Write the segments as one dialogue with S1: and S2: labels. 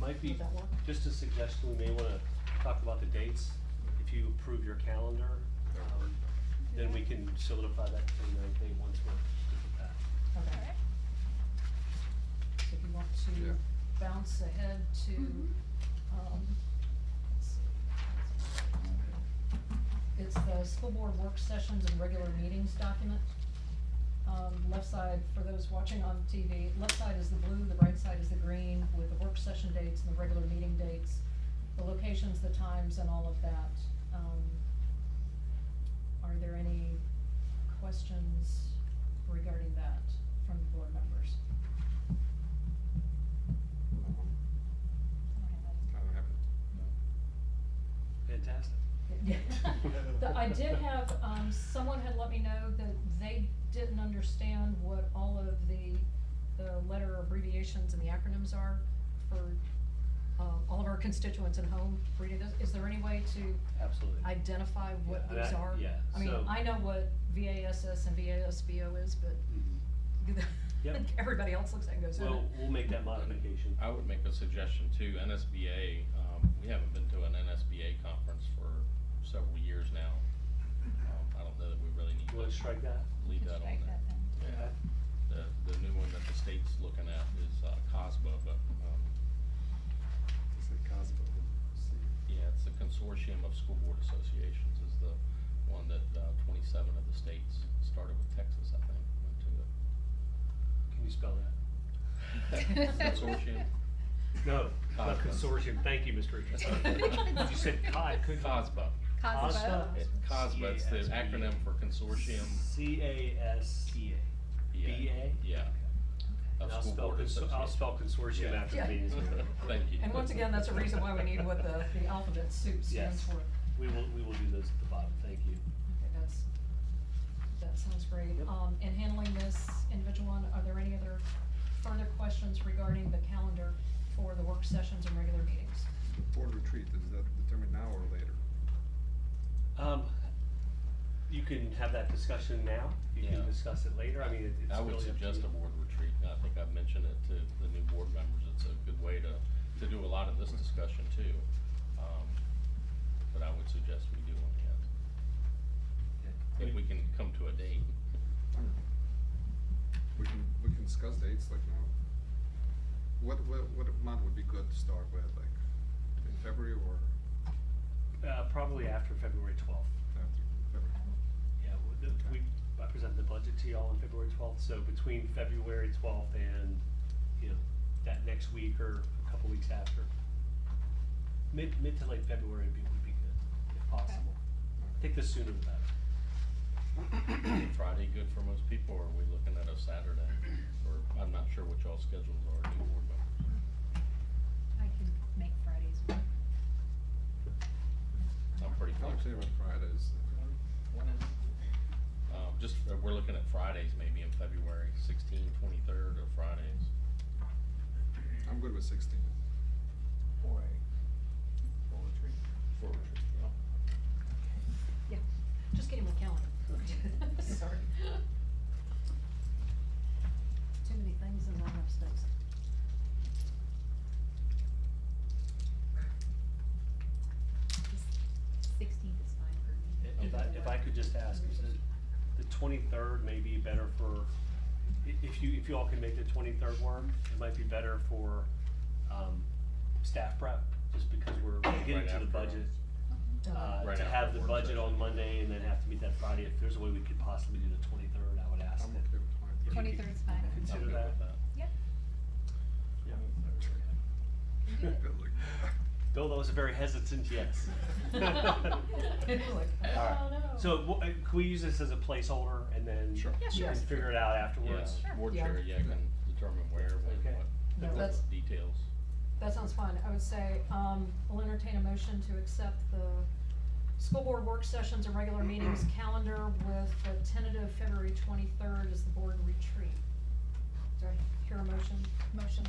S1: might be,
S2: Would that work?
S1: just a suggestion, we may wanna talk about the dates. If you approve your calendar, um, then we can solidify that twenty-ninth day once we're good with that.
S2: Okay, so if you want
S3: Yeah.
S2: to bounce ahead to,
S4: Mhm.
S3: Mm-hmm.
S2: um, let's see. It's the school board work sessions and regular meetings document. Um, left side, for those watching on TV, left side is the blue, the right side is the green, with the work session dates and the regular meeting dates, the locations, the times, and all of that. Um, are there any questions regarding that from the board members?
S3: I don't have it.
S1: Fantastic.
S2: Yeah. The- I did have, um, someone had let me know that they didn't understand what all of the, the letter abbreviations and the acronyms are for, um, all of our constituents at home reading this. Is there any way to
S1: Absolutely.
S2: identify what
S1: Yeah,
S2: those
S1: that-
S2: are?
S1: yeah,
S2: I mean,
S1: so-
S2: I know what VASS and VASBO is, but
S1: Mhm. Yep.
S2: everybody else looks at it and goes, "Oh,
S1: Well, we'll make that modification.
S5: I would make a suggestion too, NSBA, um, we haven't been to an NSBA conference for several years now. Um, I don't know that we really need
S1: You wanna
S5: to
S1: strike that?
S5: leave
S4: Could
S5: that on there.
S4: strike that then.
S1: Okay.
S5: Yeah, the, the new one that the state's looking at is, uh, COSBA, but, um,
S3: It's a Cosmo.
S5: yeah, it's a consortium of school board associations is the one that, uh, twenty-seven of the states, started with Texas, I think, went to it.
S1: Can you spell that?
S5: Consortium,
S1: No, uh,
S5: not
S1: consortium, thank you, Mr.
S4: Richards.
S1: You said COD, could
S5: COSBA,
S4: Cosmo.
S5: It- COSBA, it's the
S1: CASBA.
S5: acronym for Consortium.
S1: C A S C A.
S5: Yeah.
S1: BA?
S5: Yeah.
S1: And
S5: Of
S1: I'll
S5: school
S1: spell,
S5: board
S1: cons- I'll spell consortium
S5: Yeah.
S1: after the
S2: Yeah.
S1: meeting's over.
S5: Thank you.
S2: And once again, that's a reason why we need what the, the alphabet soup stands
S1: Yes.
S2: for.
S1: We will, we will do those at the bottom, thank you.
S2: Okay, that's, that sounds great.
S1: Yep.
S2: Um, in handling this individual one, are there any other further questions regarding the calendar for the work sessions and regular meetings?
S3: The board retreat, is that determined now or later?
S1: Um, you can have that discussion now, you can
S5: Yeah.
S1: discuss it later, I mean, it- it's really
S5: I
S1: up to you.
S5: would suggest a board retreat, and I think I've mentioned it to the new board members, it's a good way to, to do a lot of this discussion too. Um, But I would suggest we do one, yeah,
S1: Yeah.
S5: if we can come to a date.
S3: We can, we can discuss dates like now. What, what, what month would be good to start with, like in February or
S1: Uh, probably after February twelfth.
S3: after February?
S1: Yeah, w- the- we, I presented the budget to y'all on February twelfth, so between February twelfth and, you know, that next week or a couple weeks after. Mid, mid to late February would be, would be good, if possible. I think the sooner the better.
S5: Friday good for most people, or are we looking at a Saturday? Or, I'm not sure what y'all's schedules are, new board members.
S4: I can make Fridays work.
S5: I'm pretty
S3: I would say
S5: flexible.
S3: about Fridays.
S5: Um, just, uh, we're looking at Fridays maybe in February, sixteen, twenty-third or Fridays.
S3: I'm good with sixteen.
S6: for a, for a retreat.
S5: For retreat, yeah.
S2: Yeah, just getting my calendar. Sorry. Too many things and not enough space.
S4: Sixteenth is fine for me.
S1: If I, if I could just ask, is the, the twenty-third may be better for, i- if you, if you all can make the twenty-third work, it might be better for, um, staff prep, just because we're we're getting
S5: Right
S1: to the
S5: after.
S1: budget.
S2: Uh,
S1: Uh,
S5: Right
S1: to
S5: after
S1: have the
S5: work
S1: budget
S5: session.
S1: on Monday and then have to meet that Friday, if there's a way we could possibly do the twenty-third, I would ask
S3: I'm okay
S1: that.
S3: with
S1: if you
S3: twenty-third.
S1: could
S4: 23rd 's fine.
S5: I'm
S1: Consider
S5: good
S1: that.
S5: with that.
S4: Yep.
S1: Bill, that was a very hesitant yes.
S2: Like, oh, no.
S1: So, wh- uh, can we use this as a placeholder and then?
S3: Sure.
S4: Yeah,
S1: we
S4: sure.
S1: can Figure it out afterwards?
S5: Yeah,
S4: Sure.
S5: board
S2: Yeah.
S5: chair, yeah, can determine where, when,
S1: Okay.
S5: what,
S2: No,
S5: the
S2: that's-
S5: details.
S2: That sounds fun. I would say, um, we'll entertain a motion to accept the school board work sessions and regular meetings calendar with a tentative February twenty-third as the board retreat. Do I hear a motion?
S4: Motion.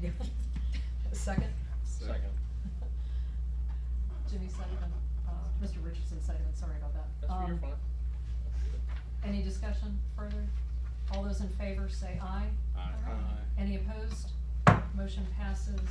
S2: A Second?
S5: Second.
S2: Jimmy Sullivan, uh, Mr. Richardson Sullivan, sorry about that.
S5: That's your
S2: Um,
S5: fine.
S2: Any discussion further? All those in favor say aye.
S5: Aye.
S4: Aye.
S2: Any opposed? Motion passes